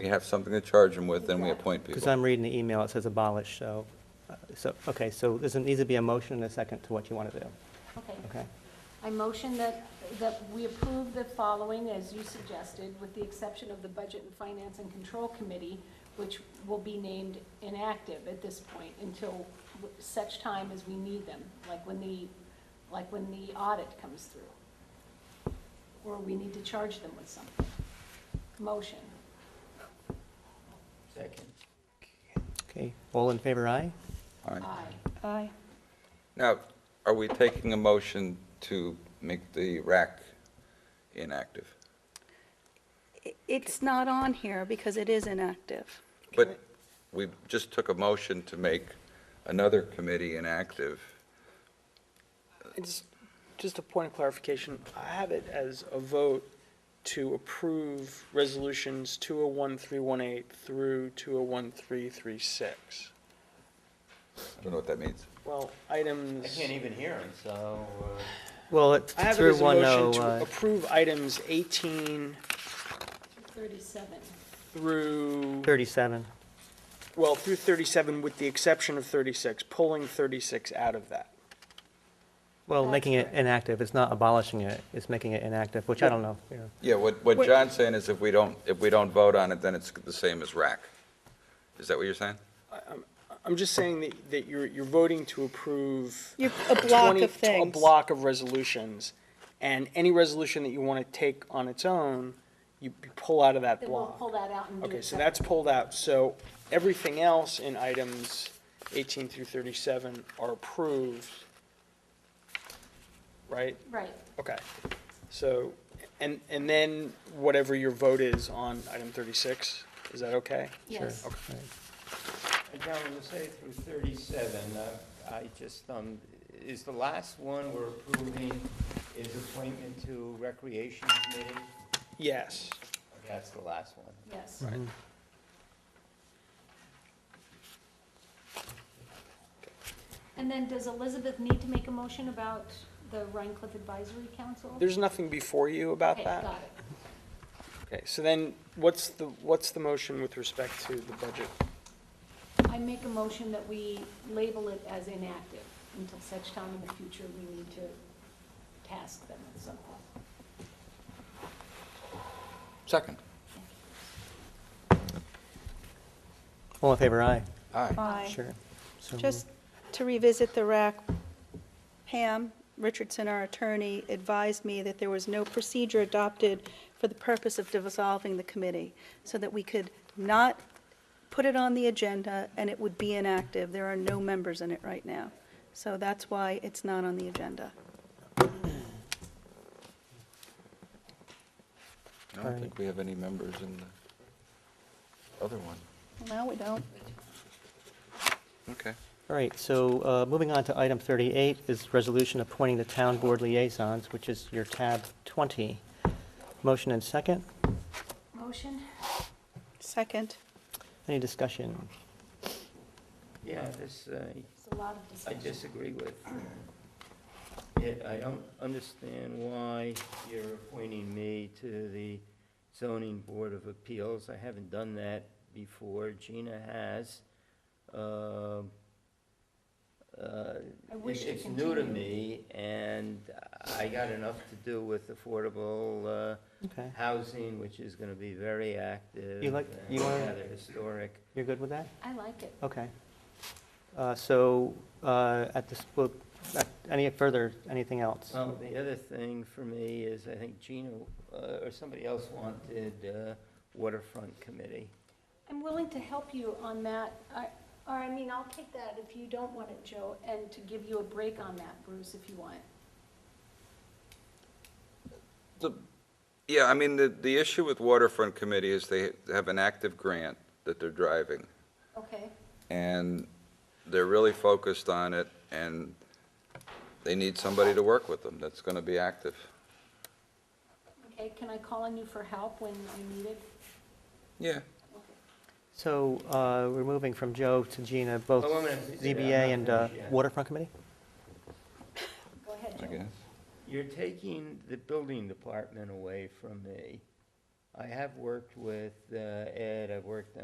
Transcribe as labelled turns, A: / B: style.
A: we have something to charge them with, then we appoint
B: Because
A: people.
B: I'm reading the email, it says abolish, so, uh, so, okay, so there's, needs to be a motion and a second to what you want to do,
C: Okay.
B: okay?
C: I motion that, that we approve the following as you suggested, with the exception of the Budget and Finance and Control Committee, which will be named inactive at this point until such time as we need them, like when the, like when the audit comes through. Or we need to charge them with something. Motion.
D: Second.
B: Okay, all in favor, aye?
A: All right.
C: Aye.
E: Aye.
A: Now, are we taking a motion to make the rack inactive?
E: I- It's not on here because it is inactive.
A: But we just took a motion to make another committee inactive.
F: It's just a point of clarification. I have it as a vote to approve resolutions 201318 through 201336.
A: I don't know what that means.
F: Well,
D: I
F: items,
D: can't even hear him, so, uh,
B: Well, it's
F: I have it
B: through
F: as a
B: one
F: motion to
B: oh,
F: approve items 18
C: Thirty-seven.
F: through,
B: thirty-seven.
F: well, through 37 with the exception of 36, pulling 36 out of that.
B: Well,
C: That's
B: making it
C: correct.
B: inactive, it's not abolishing it, it's making it inactive, which I don't know, yeah.
A: Yeah, what, what
E: Wait.
A: John's saying is if we don't, if we don't vote on it, then it's the same as rack. Is that what you're saying?
F: I'm just saying that, that you're, you're voting to approve
E: You're- A block
F: 20
E: of things.
F: A block of resolutions, and any resolution that you want to take on its own, you you pull out of that
C: Then we'll pull
F: block.
C: that out and do it.
F: Okay, so that's pulled out, so everything else in items 18 through 37 are approved, right?
C: separate. Right.
F: Okay, so, and, and then whatever your vote is on item 36, is that okay?
C: Yes.
D: and down to say through thirty-seven, uh, I just, um, is the last one we're approving is appointment to Recreation Committee?
F: Yes.
D: That's the last one.
C: Yes. And then does Elizabeth need to make a motion about the Rhine Cliff Advisory Council?
F: There's nothing before you about
C: Okay,
F: that?
C: got it.
F: Okay, so then, what's the, what's the motion with respect to the budget?
C: I make a motion that we label it as inactive until such time in the future we need to task them at some point.
A: Second.
B: All in favor, aye?
A: Aye.
E: Aye.
B: Sure. So
E: Just to revisit the RAC, Pam Richardson, our attorney, advised me that there was no procedure adopted for the purpose of dissolving the committee, so that we could not put it on the agenda and it would be inactive. There are no members in it right now. So that's why it's not on the agenda.
A: I don't
B: Aye.
A: think we have any members in the other one.
E: No, we don't.
A: Okay.
B: All right, so uh, moving on to item 38 is resolution appointing the town board liaisons, which is your tab 20. Motion and second.
C: Motion?
E: Second.
B: Any discussion?
D: Yeah, this, uh,
C: It's a lot of
D: I
C: discussion.
D: disagree with. It, I don't understand why you're appointing me to the zoning board of appeals. I haven't done that before. Gina has. Um, uh,
C: I wish
D: it-
C: to
D: It's new to
C: continue.
D: me, and I got enough to do with affordable, uh,
B: Okay,
D: housing, which is gonna be very active.
B: You like-
D: and
B: you wanna-
D: Rather historic.
B: you're good with that?
C: I like it.
B: Okay. Uh, So uh, at this, well, at- any further, anything else?
D: Well, the other thing for me is, I think Gina, uh, or somebody else wanted uh, waterfront committee.
C: I'm willing to help you on that, I- or, I mean, I'll take that if you don't want it, Joe, and to give you a break on that, Bruce, if you want.
A: The, yeah, I mean, the, the issue with waterfront committee is they have an active grant that they're driving,
C: Okay?
A: and they're really focused on it, and they need somebody to work with them that's gonna be active.
C: Okay, can I call on you for help when I need it?
A: Yeah.
B: So uh, we're moving from Joe to Gina, both
D: Oh, wait a minute.
B: ZBA and uh,
D: Yeah, I'm not finished yet.
B: waterfront committee?
C: Go ahead,
A: I
C: Joe.
A: guess.
D: You're taking the building department away from me. I have worked with uh, Ed, I've worked